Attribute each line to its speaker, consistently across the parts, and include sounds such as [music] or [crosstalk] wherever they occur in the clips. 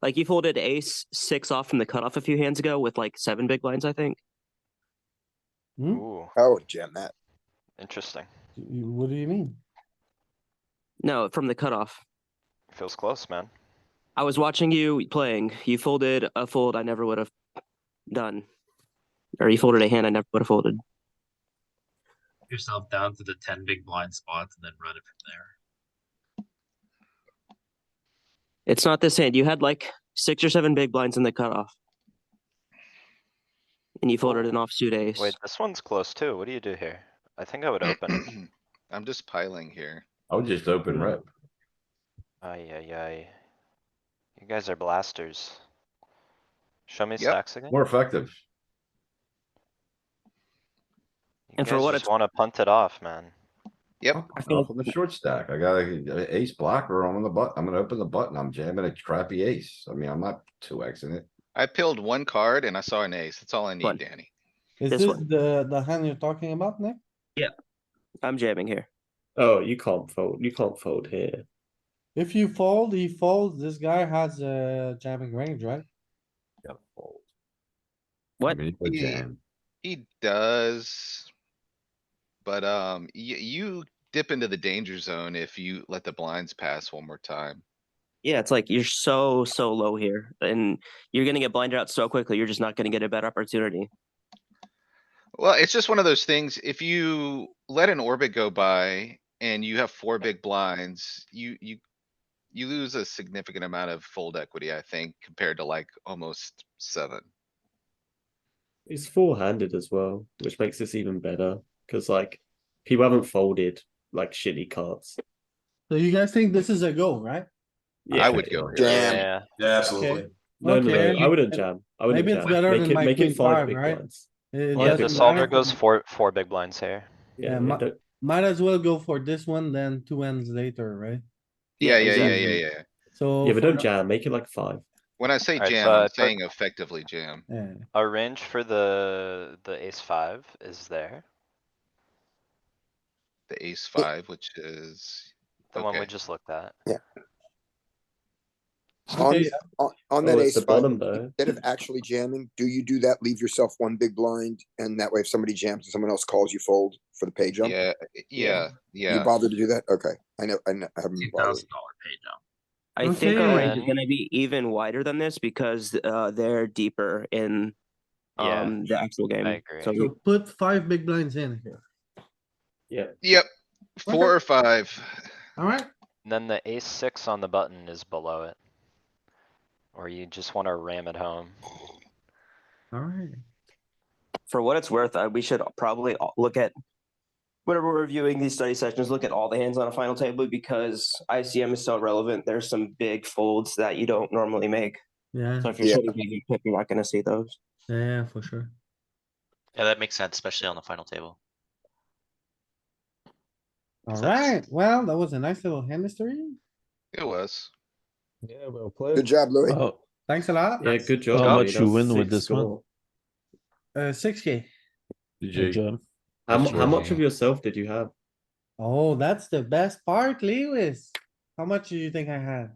Speaker 1: Like you folded ace six off from the cutoff a few hands ago with like seven big blinds, I think.
Speaker 2: Hmm?
Speaker 3: Ooh,
Speaker 4: I would Oh, jam that.
Speaker 3: interesting.
Speaker 2: You- What do you mean?
Speaker 1: No, from the cutoff.
Speaker 3: Feels close, man.
Speaker 1: I was watching you playing. You folded a fold I never would have done. Or you folded a hand I never would have folded.
Speaker 5: yourself down to the ten big blind spots and then run it from there.
Speaker 1: It's not this hand. You had like six or seven big blinds in the cutoff. And you folded an offsuit ace.
Speaker 3: Wait, this one's close too. What do you do here? I think
Speaker 1: [clears throat]
Speaker 3: I would open.
Speaker 6: [clears throat] I'm just piling here.
Speaker 7: I would just open rip.
Speaker 3: Ay, ay, ay. You guys are blasters. Show me
Speaker 6: Yep.
Speaker 3: stacks again.
Speaker 7: More effective.
Speaker 3: You
Speaker 1: And for
Speaker 3: guys
Speaker 1: what
Speaker 3: just
Speaker 1: it's-
Speaker 3: wanna punt it off, man.
Speaker 6: Yep,
Speaker 7: Off on the short stack. I got a- a ace blocker on the button. I'm gonna open the button. I'm jamming a crappy ace. I mean, I'm not two Xing it.
Speaker 6: I peeled one card and I saw an ace. That's all I
Speaker 1: One.
Speaker 6: need, Danny.
Speaker 2: Is
Speaker 1: This
Speaker 2: this
Speaker 1: one.
Speaker 2: the, the hand you're talking about, Nick?
Speaker 1: I'm jamming here.
Speaker 8: Oh, you can't fold. You can't fold here.
Speaker 2: If you fold, he folds, this guy has a jamming range, right?
Speaker 7: Yep, fold.
Speaker 1: What?
Speaker 7: I mean, you
Speaker 6: Yeah.
Speaker 7: jam.
Speaker 6: He does. But, um, you, you dip into the danger zone if you let the blinds pass one more time.
Speaker 1: Yeah, it's like you're so, so low here. And you're gonna get blinded out so quickly, you're just not gonna get a better opportunity.
Speaker 6: Well, it's just one of those things. If you let an orbit go by and you have four big blinds, you, you. You lose a significant amount of fold equity, I think, compared to like almost seven.
Speaker 8: It's four-handed as well, which makes this even better because like people haven't folded like shitty cards.
Speaker 2: So you guys think this is a go, right?
Speaker 6: I would go here.
Speaker 4: Jam.
Speaker 3: Yeah,
Speaker 9: Yeah,
Speaker 2: absolutely.
Speaker 8: No, no,
Speaker 2: Okay.
Speaker 8: no. I wouldn't jam. I wouldn't
Speaker 2: Maybe it's
Speaker 8: jam.
Speaker 2: better
Speaker 8: make
Speaker 2: than
Speaker 8: it,
Speaker 2: my
Speaker 8: make
Speaker 2: queen
Speaker 8: it five
Speaker 2: five,
Speaker 8: big
Speaker 2: right?
Speaker 8: blinds.
Speaker 2: It
Speaker 3: yeah, the
Speaker 2: doesn't
Speaker 3: solver
Speaker 2: matter.
Speaker 3: goes four, four big blinds here.
Speaker 2: Yeah,
Speaker 8: Yeah,
Speaker 2: my-
Speaker 8: it don't-
Speaker 2: Might as well go for this one than two ends later, right?
Speaker 6: Yeah, yeah, yeah, yeah,
Speaker 2: exactly.
Speaker 6: yeah.
Speaker 2: So.
Speaker 8: yeah, but
Speaker 2: for
Speaker 8: don't
Speaker 2: the-
Speaker 8: jam. Make it like five.
Speaker 6: When I say
Speaker 3: Alright,
Speaker 6: jam,
Speaker 3: so
Speaker 6: I'm
Speaker 3: it's like-
Speaker 6: saying effectively jam.
Speaker 2: Yeah.
Speaker 3: Our range for the, the ace five is there,
Speaker 6: The ace five, which is,
Speaker 3: the one we
Speaker 6: Okay.
Speaker 3: just looked at.
Speaker 2: Okay,
Speaker 1: Oh,
Speaker 4: On, on, on that
Speaker 8: oh, it's
Speaker 4: ace
Speaker 8: the
Speaker 4: five,
Speaker 8: bottom though.
Speaker 4: instead of actually jamming, do you do that? Leave yourself one big blind and that way if somebody jams and someone else calls you fold for the pay jump?
Speaker 6: yeah, yeah,
Speaker 4: You
Speaker 6: yeah.
Speaker 4: bother to do that? Okay. I know, I know, I haven't
Speaker 5: Two
Speaker 4: bothered.
Speaker 5: thousand dollar pay
Speaker 1: I
Speaker 5: down.
Speaker 1: think our range is
Speaker 3: Okay.
Speaker 1: gonna be even wider than this because uh they're deeper in
Speaker 3: Yeah.
Speaker 1: um the actual game.
Speaker 3: agree.
Speaker 1: So
Speaker 2: So put five big blinds in here.
Speaker 6: Yep, four or five.
Speaker 2: Alright,
Speaker 3: And Then the ace six on the button is below it. Or you just wanna ram it home.
Speaker 2: alright.
Speaker 1: for what it's worth, I, we should probably all- look at whenever we're reviewing these study sessions, look at all the hands on a final table because ICM is so relevant. There's some big folds that you don't normally make.
Speaker 2: Yeah,
Speaker 1: So if you're
Speaker 4: Yeah.
Speaker 1: sitting big, you pick, you're not gonna see those.
Speaker 2: yeah, yeah, for sure.
Speaker 10: Yeah, that makes sense, especially on the final table.
Speaker 2: Alright, well, that was a nice little hand history.
Speaker 6: It was.
Speaker 11: Yeah, well played.
Speaker 4: Good job,
Speaker 8: Uh,
Speaker 4: Louis.
Speaker 11: Oh,
Speaker 2: Thanks a lot.
Speaker 8: Yeah, good job.
Speaker 11: How
Speaker 8: mate.
Speaker 11: much
Speaker 8: That's
Speaker 11: you win with
Speaker 8: six
Speaker 11: this one?
Speaker 8: score.
Speaker 2: Uh, six K.
Speaker 7: GG.
Speaker 11: job.
Speaker 8: How, mu-
Speaker 11: That's
Speaker 8: how much of
Speaker 11: working.
Speaker 8: yourself did you
Speaker 2: [laughs]
Speaker 8: have?
Speaker 2: Oh, that's the best part, Lewis. How much do you think I had?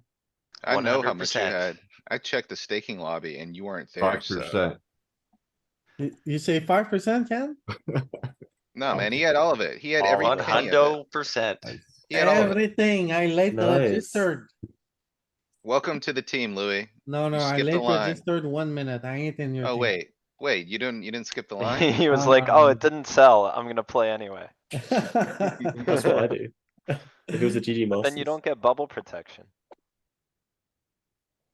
Speaker 6: I know how much you
Speaker 10: 100%.
Speaker 6: had. I checked the staking lobby and you weren't there,
Speaker 7: Five
Speaker 6: so.
Speaker 7: percent.
Speaker 2: You, you say five percent, Ken?
Speaker 6: No, man, he had all of it. He had every
Speaker 10: One
Speaker 6: penny of it.
Speaker 10: hundo percent.
Speaker 6: He had all of it.
Speaker 2: Everything, I late
Speaker 8: Nice.
Speaker 2: registered.
Speaker 6: Welcome to the team, Louis.
Speaker 2: No, no,
Speaker 6: You
Speaker 2: I
Speaker 6: skipped the
Speaker 2: late
Speaker 6: line.
Speaker 2: registered one minute. I ain't in your.
Speaker 6: Oh,
Speaker 2: team.
Speaker 6: wait, wait, you didn't, you didn't skip the line?
Speaker 3: [laughs] He was like, oh,
Speaker 2: Um,
Speaker 3: it didn't sell. I'm gonna play anyway.
Speaker 8: That's what I do. [laughs] If it was a GG master,
Speaker 3: Then you don't get bubble protection.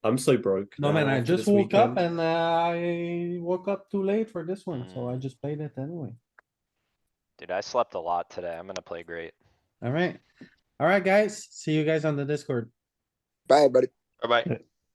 Speaker 8: I'm so broke.
Speaker 2: [laughs] No, man,
Speaker 8: now
Speaker 2: I
Speaker 8: after
Speaker 2: just
Speaker 8: this
Speaker 2: woke up and
Speaker 8: weekend.
Speaker 2: uh, I woke up too late for this one, so I
Speaker 6: Hmm.
Speaker 3: Mm.
Speaker 2: just played it anyway.
Speaker 3: Dude, I slept a lot today. I'm gonna play great.
Speaker 2: Alright, alright, guys, see you guys on the Discord.
Speaker 4: Bye, buddy.
Speaker 10: Bye bye.